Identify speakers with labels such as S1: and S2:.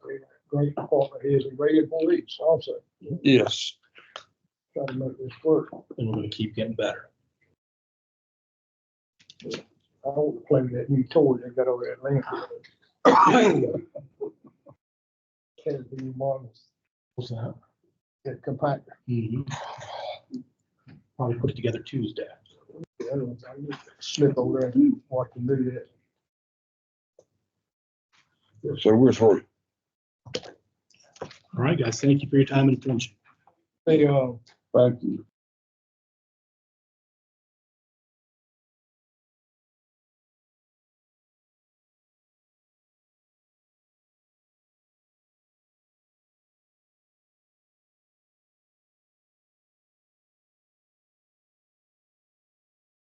S1: great department is and great employees also,
S2: Yes.
S1: trying to make this work.
S3: and we're gonna keep getting better.
S1: I don't complain that new toy they got over at landfill. Can be models,
S3: What's that?
S1: that compact,
S3: Probably put it together Tuesday.
S1: the other ones, I just slip over there and watch them do that.
S2: So we're sorry.
S3: All right, guys, thank you for your time and attention.
S1: They, uh,
S2: Thank you.